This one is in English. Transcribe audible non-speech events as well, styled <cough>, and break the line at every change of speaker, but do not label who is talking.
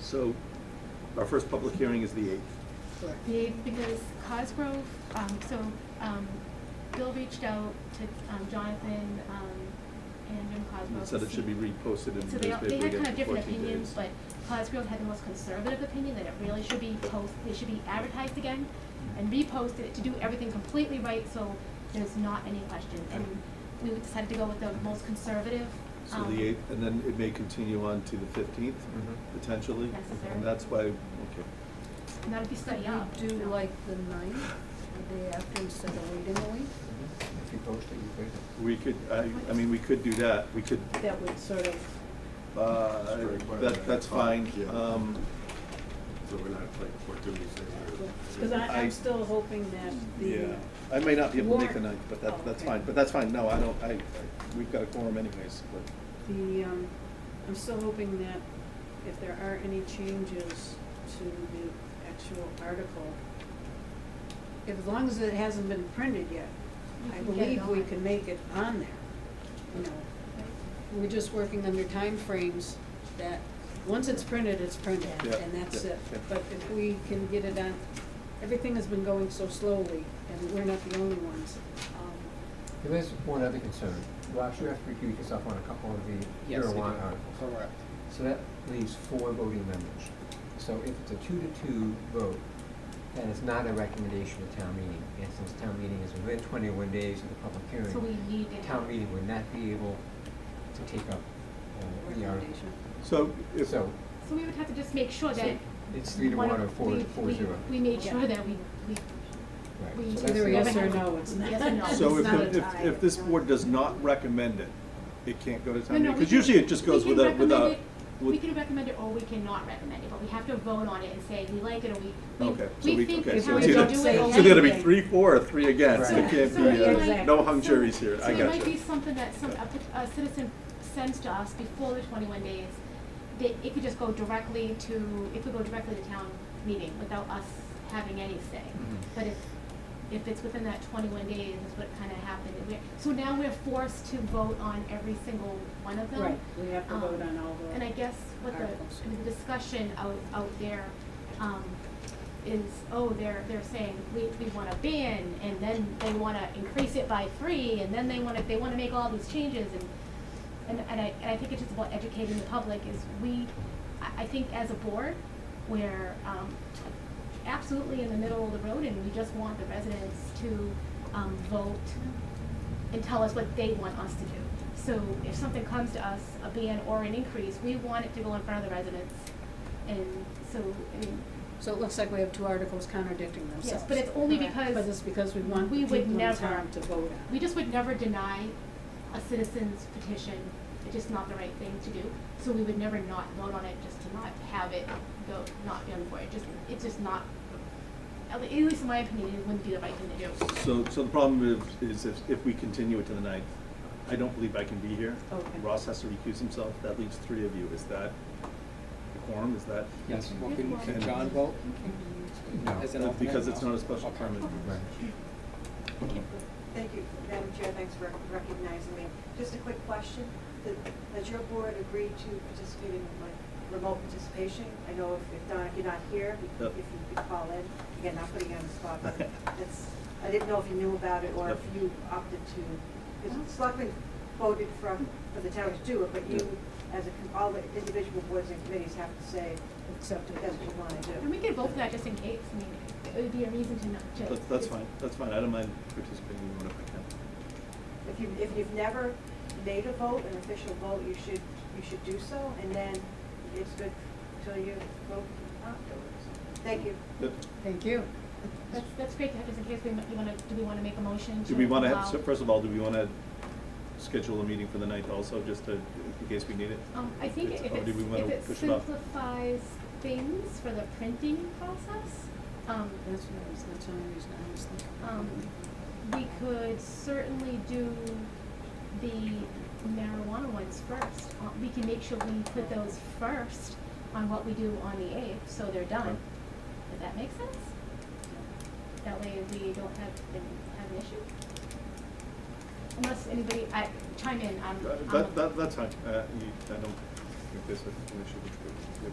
So our first public hearing is the eighth.
Correct.
The eighth, because Cosgrove, um, so, um, Bill reached out to, um, Jonathan, um, and Jim Cosgrove.
And
to
said it should
see-
be reposted in the
So they, all- they had
newspaper again
kind of
for
different
14
opinions,
days.
but Cosgrove had the most conservative opinion, that it really should be post, it should be advertised again and reposted to do everything completely right, so there's not any question. And we decided to go with the most conservative,
So
um.
the eighth, and then it may continue on to the fifteenth,
Mhm.
potentially.
Necessary.
And that's why, okay.
And that'll be
Could
studied up.
we do like the ninth, the day after, instead of waiting a week?
If you post it, you post it.
We could, I, I mean, we could do that. We could,
That would sort of,
uh, that, that's fine.
Yeah.
Um,
So we're not like four duties there.
because
I-
I'm still hoping that the,
I may not be able to make the
Warrant.
ninth, but that,
Oh,
that's
okay.
fine. But that's fine. No, I don't, I, I- we've got a quorum anyways, but.
the, um, I'm still hoping that if there are any changes to the actual article, if, as long as it hasn't been printed yet,
You
I
can get it
believe we
on.
can make it on there, you know. We're just working under timeframes that, once it's printed, it's printed,
Yeah,
and that's
yeah,
it.
yeah.
But if we can get it on, everything has been going so slowly, and we're not the only ones. Um,
There is one other concern. Ross, you have to recuse yourself on a couple of the
Yes, I do.
marijuana articles.
Correct.
So that leaves four voting members. So if it's a two to two vote, then it's not a recommendation to town meeting. And since town meeting is within twenty-one days of the public hearing.
So we need it.
Town meeting would not be able to take up uh, the article.
Recommendation.
So if,
So
So we would have to just make sure that.
it's three to
one
one or
of-
four,
we-
four
we-
zero.
We made sure
Yeah.
that we, we,
Right.
we.
So that's
Either
the-
yes
never
or
had-
no, it's not.
Yes or
<laughs>
no.
So
It's
if,
not
the-
a
if,
tie.
if this board does not recommend it, it can't go to
No,
town
no,
meeting?
we
Because
can-
usually it just
we
goes
can
without,
recommend
without.
it- We can recommend it or we cannot recommend it, but we have to vote on it and say we like it or we, we,
Okay, so
we
we,
think
okay,
we
so
have
it's
to do it.
either,
don't
so
say
it's
it.
either to be
anything.
three, four, or three against, it
Right.
can't
So
be,
it
uh,
might-
no hung
so-
juries here, I
So it
got
might be
you.
something that some, applic- a citizen sends to us before the twenty-one days, that it could just go directly to, it could go directly to town meeting without us having any say.
Mhm.
But if, if it's within that twenty-one days, that's what kinda happened, and we're, so now we're forced to vote on every single one of them.
Right, we have to
Um,
vote on all the.
And I guess what the,
articles.
the discussion out, out there, um, is, oh, they're, they're saying, we, we wanna ban, and then they wanna increase it by three, and then they wanna, they wanna make all these changes, and, and, and I, and I think it's just about educating the public, is we, I, I think as a board, we're, um, absolutely in the middle of the road, and we just want the residents to, um, vote and tell us what they want us to do. So if something comes to us, a ban or an increase, we want it to go in front of the residents. And so, I mean,
So it looks like we have two articles contradicting themselves.
but it's only because
But it's because we want
we
people
would
in
never-
town to vote on.
we just would never deny a citizen's petition, it's just not the right thing to do. So we would never not vote on it, just to not have it go, not be on the board, just, it's just not, at le- at least in my opinion, it wouldn't be the right thing to do.
So, so the problem is, is if, if we continue it to the ninth, I don't believe I can be here.
Okay.
Ross has to recuse himself, that leaves three of you, is that the quorum, is that?
Yes, well,
Good
can,
one.
can John vote?
No.
As an
Uh,
alternate?
Because it's
No.
not a special
Okay.
permit.
Right.
Thank you, Madam Chair, thanks for recognizing me. Just a quick question, Did- has your board agreed to participate in like remote participation? I know if if not, if you're not here, if
Yep.
you could call in, again, not putting you on the spot,
<laughs>
but it's, I didn't know if you knew about it or if
Yep.
you opted to, because Selectmen voted for, for the town to do it, but you, as a, com- all the individual boards and committees have to say,
Accept it.
that's what you want to do.
And we could vote for that just in case, I mean, it would be a reason to not, to.
That's, that's fine, that's fine, I don't mind participating even if I can't.
If you, if you've never made a vote, an official vote, you should, you should do so, and then it's good till you vote afterwards. Thank you.
But
Thank you.
That's, that's great to have, just in case we, you wanna, do we wanna make a motion to
Do we wanna, have-
allow-
so first of all, do we wanna schedule a meeting for the ninth also, just to, in case we need it?
Um, I think if
It's-
it's,
or do we wanna
if it
push it off?
simplifies things for the printing process, um,
That's what I was, that's the only reason I was thinking.
um, we could certainly do the marijuana ones first. Uh, We can make sure we put those first on what we do on the eighth, so they're
Okay.
done. Does that make sense? That way we don't have, have an issue? Unless anybody, I, chime in, I'm,
Uh,
I'm.
That, that, that's fine, uh, you, I don't think there's an issue with